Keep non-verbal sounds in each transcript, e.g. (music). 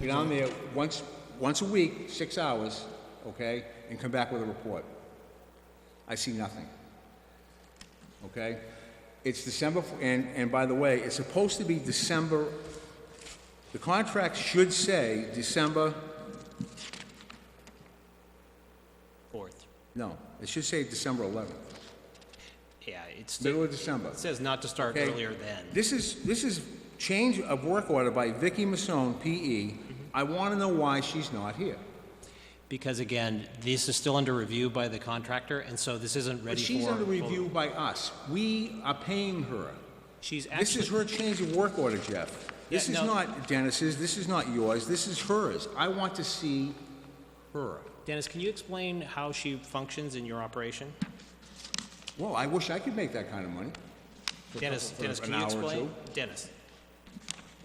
Get on there once, once a week, six hours, okay, and come back with a report. I see nothing. Okay? It's December, f- and, and by the way, it's supposed to be December, the contract should say December, Fourth. no, it should say December 11th, Yeah, it's, middle it of December. says not to start Okay. earlier than. This is, this is change of work order by Vicky Masson, PE. I want to know why she's not here. Because again, this is still under review by the contractor, and so this isn't But ready for. she's under vote. review by us. We are paying her. She's This is actually, her change of work order, Jeff. This Yeah, is no. not Dennis's, this is not yours, this is hers. I want to see her. Dennis, can you explain how she functions in your operation? Well, I wish I could make that kind of money. Dennis, for Dennis, an can you hour or explain? two. Dennis,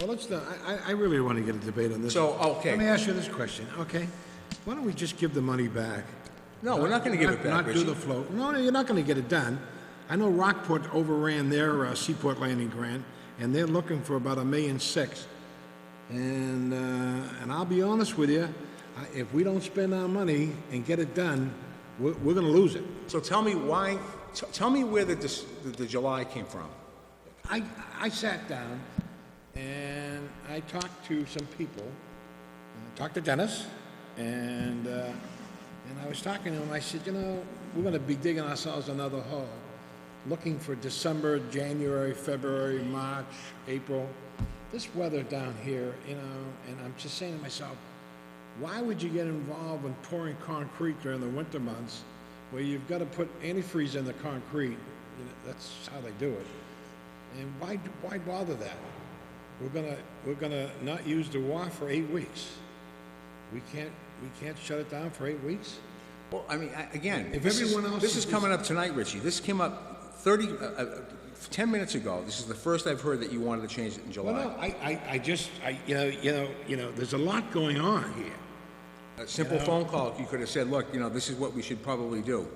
Well, let's, not- I, I- I really want to get a debate on this. So, okay. Let me ask you this question, okay? Why don't we just give the money back? No, we're not gonna give it back, Not do Richie. the float. No, no, you're not going to get it done. I know Rockport overran their uh, Seaport Landing grant, and they're looking for about a million six. And, uh, and I'll be honest with you, I- if we don't spend our money and get it done, we're, we're going to lose it. So tell me why, t- tell me where the, dis- the- the July came from. I, I sat down and I talked to some people. I talked to Dennis and, uh, and I was talking to him. I said, you know, we're going to be digging ourselves another hole, looking for December, January, February, March, April. This weather down here, you know, and I'm just saying to myself, why would you get involved in pouring concrete during the winter months where you've got to put antifreeze in the concrete? You know, that's how they do it. And why, why bother that? We're gonna, we're gonna not use the WAF for eight weeks. We can't, we can't shut it down for eight weeks? Well, I mean, I- again, If this is, everyone else this is is- coming up tonight, Richie. This came up 30, uh, uh, 10 minutes ago. This is the first I've heard that you wanted to change it in Well, July. no, I, I, I just, I, you know, you know, you know, there's a lot going on here. A simple phone call, you could have said, look, you know, this is what we should probably do.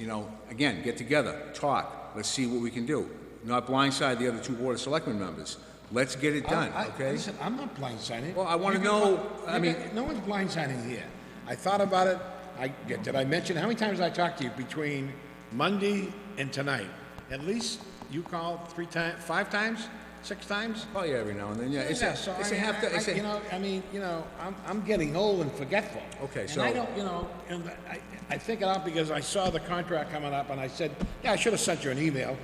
You know, again, get together, talk, let's see what we can do. Not blindside the other two Board of Selectmen members. Let's get it done, I- I- okay? Listen, I'm not blindsided. Well, I wanna You can- know- I you mean- can- No one's blindsided here. I thought about it, I, did I mention, how many times I talked to you between Monday and tonight? At least you called three times, five times, six times? Call you every now and then, yeah. It's Yeah, a, so it's a I mean, half, I- it's I- You a, know, I mean, you know, I'm, I'm getting old and forgetful. Okay, And so- I don't, you know, and I, I think it out because I saw the contract coming up and I said, yeah, I should have sent you an email.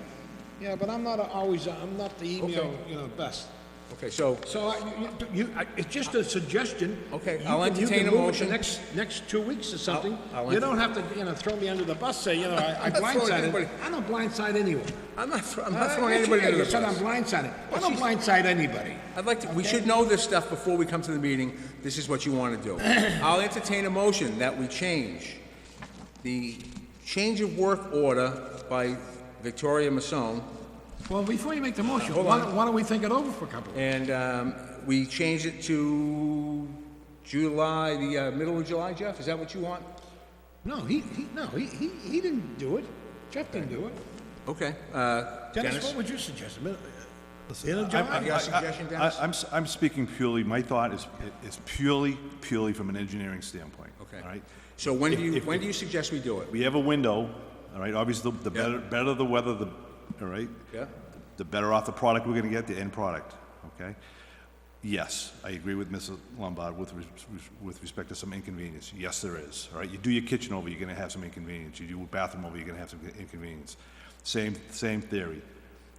Yeah, but I'm not a- always, I'm not the email, Okay. you know, best. okay, so, So I- you, you, you- I- it's just a suggestion. Okay, You I'll can- you entertain can a move it motion. the next, next two weeks or something. I'll You enter- don't have to, you know, throw me under the bus, say, you (laughs) know, I I I'm not throwing anybody- blindsided. I don't blindside anyone. I'm not, thro- I'm not Uh, throwing yes, you anybody did. under You said I'm the bus. blindsided. I Well, don't she's- blindside anybody. I'd like to, we should know this stuff before we come to the meeting. This is what you want to (coughs) do. I'll entertain a motion that we change the change of work order by Victoria Masson Well, before you make the motion, why don't, why don't we think it over for a couple? And um, we changed it to July, the uh, middle of July, Jeff? Is that what you want? No, he, he, no, he, he, he didn't do it. Jeff didn't do it. Okay. uh, Dennis, Dennis? what would you suggest? A minute- End of I'm- July? got a I- I- suggestion, I- Dennis? I'm, s- I'm speaking purely, my thought is, is purely, purely from an engineering standpoint. Okay. All right? So when do you, if- when do you suggest we do it? We have a window, all right? Obviously, the- the Yeah. better, better the weather, the, all right? Yeah? The better off the product we're gonna get, the end product, okay? Yes, I agree with Mrs. Lombard with, res- with respect to some inconvenience. Yes, there is, all right? You do your kitchen over, you're gonna have some inconvenience. You do a bathroom over, you're gonna have some inconvenience. Same, same theory,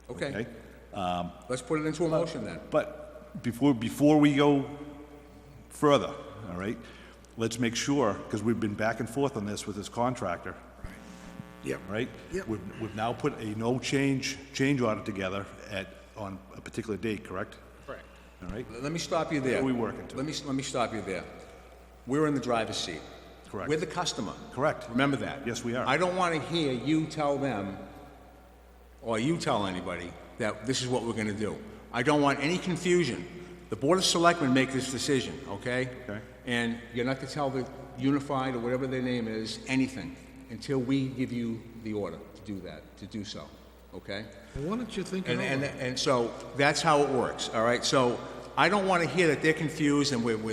Okay. okay? Let's put it into a motion then. But before, before we go further, all right, let's make sure, because we've been back and forth on this with this contractor, Yep. right? Yep. We've, we've now put a no change, change order together at, on a particular date, correct? correct. All right, Let me stop you there. What are we working to? Let me, let me stop you there. We're in the driver's seat. Correct. We're the customer. correct. Remember that. Yes, we are. I don't want to hear you tell them, or you tell anybody, that this is what we're going to do. I don't want any confusion. The Board of Selectmen make this decision, okay? Okay. And you're not to tell the Unified or whatever their name is anything until we give you the order to do that, to do so, okay? Well, Why don't you think it And, and, over? and so that's how it works, all right? So I don't want to hear that they're confused and we're, we're